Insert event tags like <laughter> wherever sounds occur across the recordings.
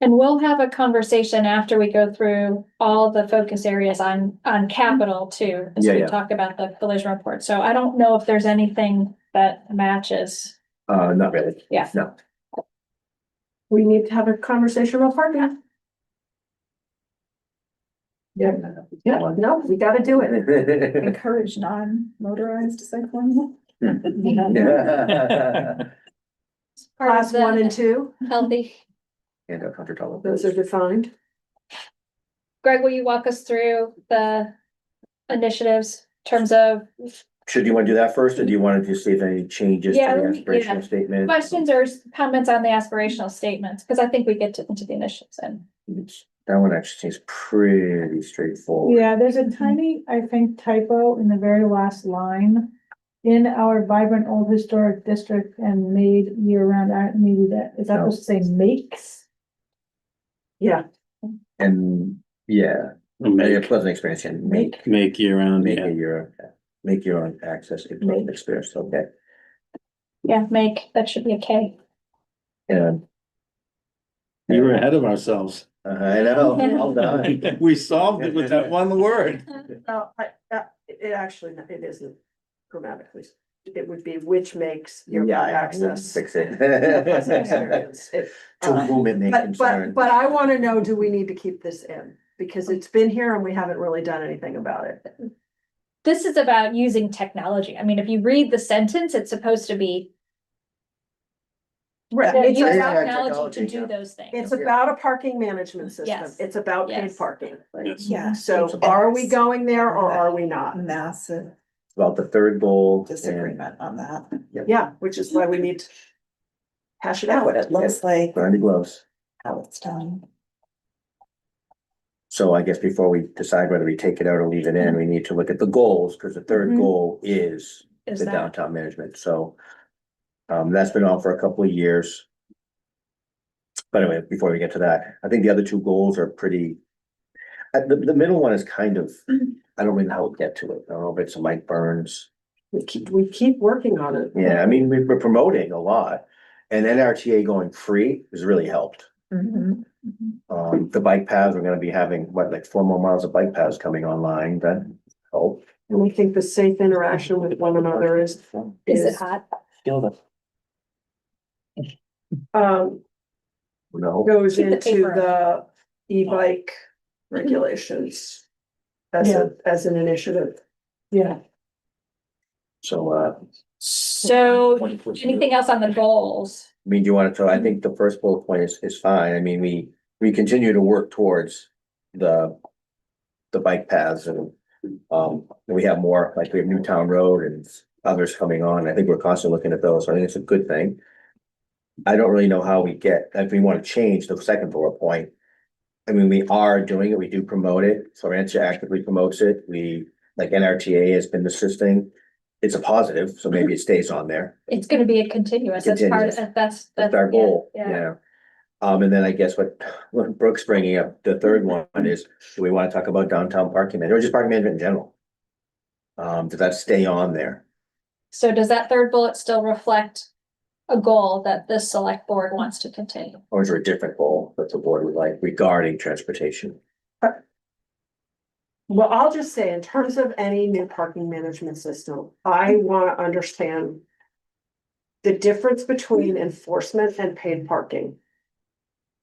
And we'll have a conversation after we go through all the focus areas on, on capital too. As Yeah, we yeah. talk about the collision report. So I don't know if there's anything that matches. Uh, not really. Yeah. No. We need to have a conversation about parking. Yeah, yeah, no, we gotta do it. Yeah. <laughs> encourage non-motorized cycling. Class one and two, Healthy. And a hundred dollar. those are defined. Greg, will you walk us through the initiatives in terms of Should you want to do that first, or do you want to just see if any changes to Yeah, the let me- yeah. aspirational statement? questions or comments on the aspirational statements? Because I think we get to- into the initiatives and It's- That one actually seems pretty straightforward. Yeah, there's a tiny, I think typo in the very last line. In our vibrant old historic district and made year-round, I maybe that, is that No. supposed to say makes? Yeah, And, yeah, maybe a Make, pleasant experience can make, make year round, make yeah. it your, make your own access a pleasant experience, okay? yeah, make, that should be a K. And. We were ahead of ourselves. <laughs> <laughs> I know, well done. We solved it with that one word. uh, I, uh, it actually, it isn't grammatically. It would be which makes your Yeah, <laughs> access. Fix it. a pleasant experience. It- <laughs> To whom it may But, concern. but, but I wanna know, do we need to keep this in? Because it's been here and we haven't really done anything about it. This is about using technology. I mean, if you read the sentence, it's supposed to be Right. They're It's using Yeah, about, technology to technology, yeah. do those things. it's about a parking management system. Yes. It's about paid Yes. parking. Yes. Yeah. So are we going there or are we not? Massive About the third goal. and disagreement on that. Yeah, which is why we need to hash it out. What it looks like, Burn the gloves. how it's done. So I guess before we decide whether we take it out or leave it in, we need to look at the goals, because the third Mhm. goal is Is the that- downtown management, so. Um, that's been on for a couple of years. But anyway, before we get to that, I think the other two goals are pretty. uh, the, the middle one is kind of, Mm-hmm. I don't really know how to get to it. I don't know if it's Mike Burns. We keep, we keep working on it. Yeah, I mean, we- we're promoting a lot and NRTA going free has really helped. Um, the bike paths, we're gonna be having, what, like four more miles of bike paths coming online, that helped. And we think the safe interaction with one another is, Is it is, hot? um, No, goes Keep the into paper the e-bike regulations as a, as an initiative. Yeah. so, uh, So anything else on the goals? I mean, do you want to, I think the first bullet point is, is fine. I mean, we, we continue to work towards the, the bike paths and, um, we have more, like we have Newtown Road and others coming on. I think we're constantly looking at those. so I think it's a good thing. I don't really know how we get, if we want to change the second bullet point. I mean, we are doing it. We do promote it. Florentia actively promotes it. We, like NRTA has been assisting. It's a positive, so maybe it stays on there. It's gonna be a continuous, that's part, Continuous. of that's. That's our yeah, goal, Yeah, yeah. Um, and then I guess what, what Brooke's bringing up, the third one Mm-hmm. is, do we want to talk about downtown parking management or just parking management in general? Um, does that stay on there? so does that third bullet still reflect a goal that this select board wants to continue? Or is there a different goal that the board would like regarding transportation? Well, I'll just say, in terms of any new parking management system, I wanna understand. The difference between enforcement and paid parking.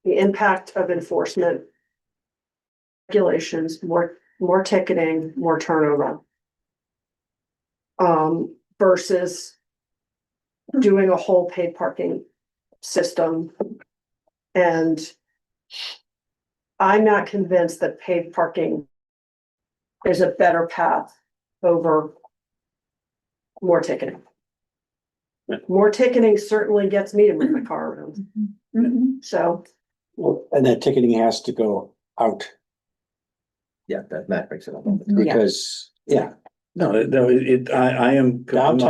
The impact of enforcement. Regulations, more, more ticketing, more turnover. Um, versus. Doing a whole paid parking system. And. I'm not convinced that paid parking is a better path over more ticketing. More ticketing certainly gets me to move my car around, Mm-hmm. so Well, and that ticketing has to go out Yeah, that, that brings it up. because, yeah, No, no, it, I, I am. I'm not- downtown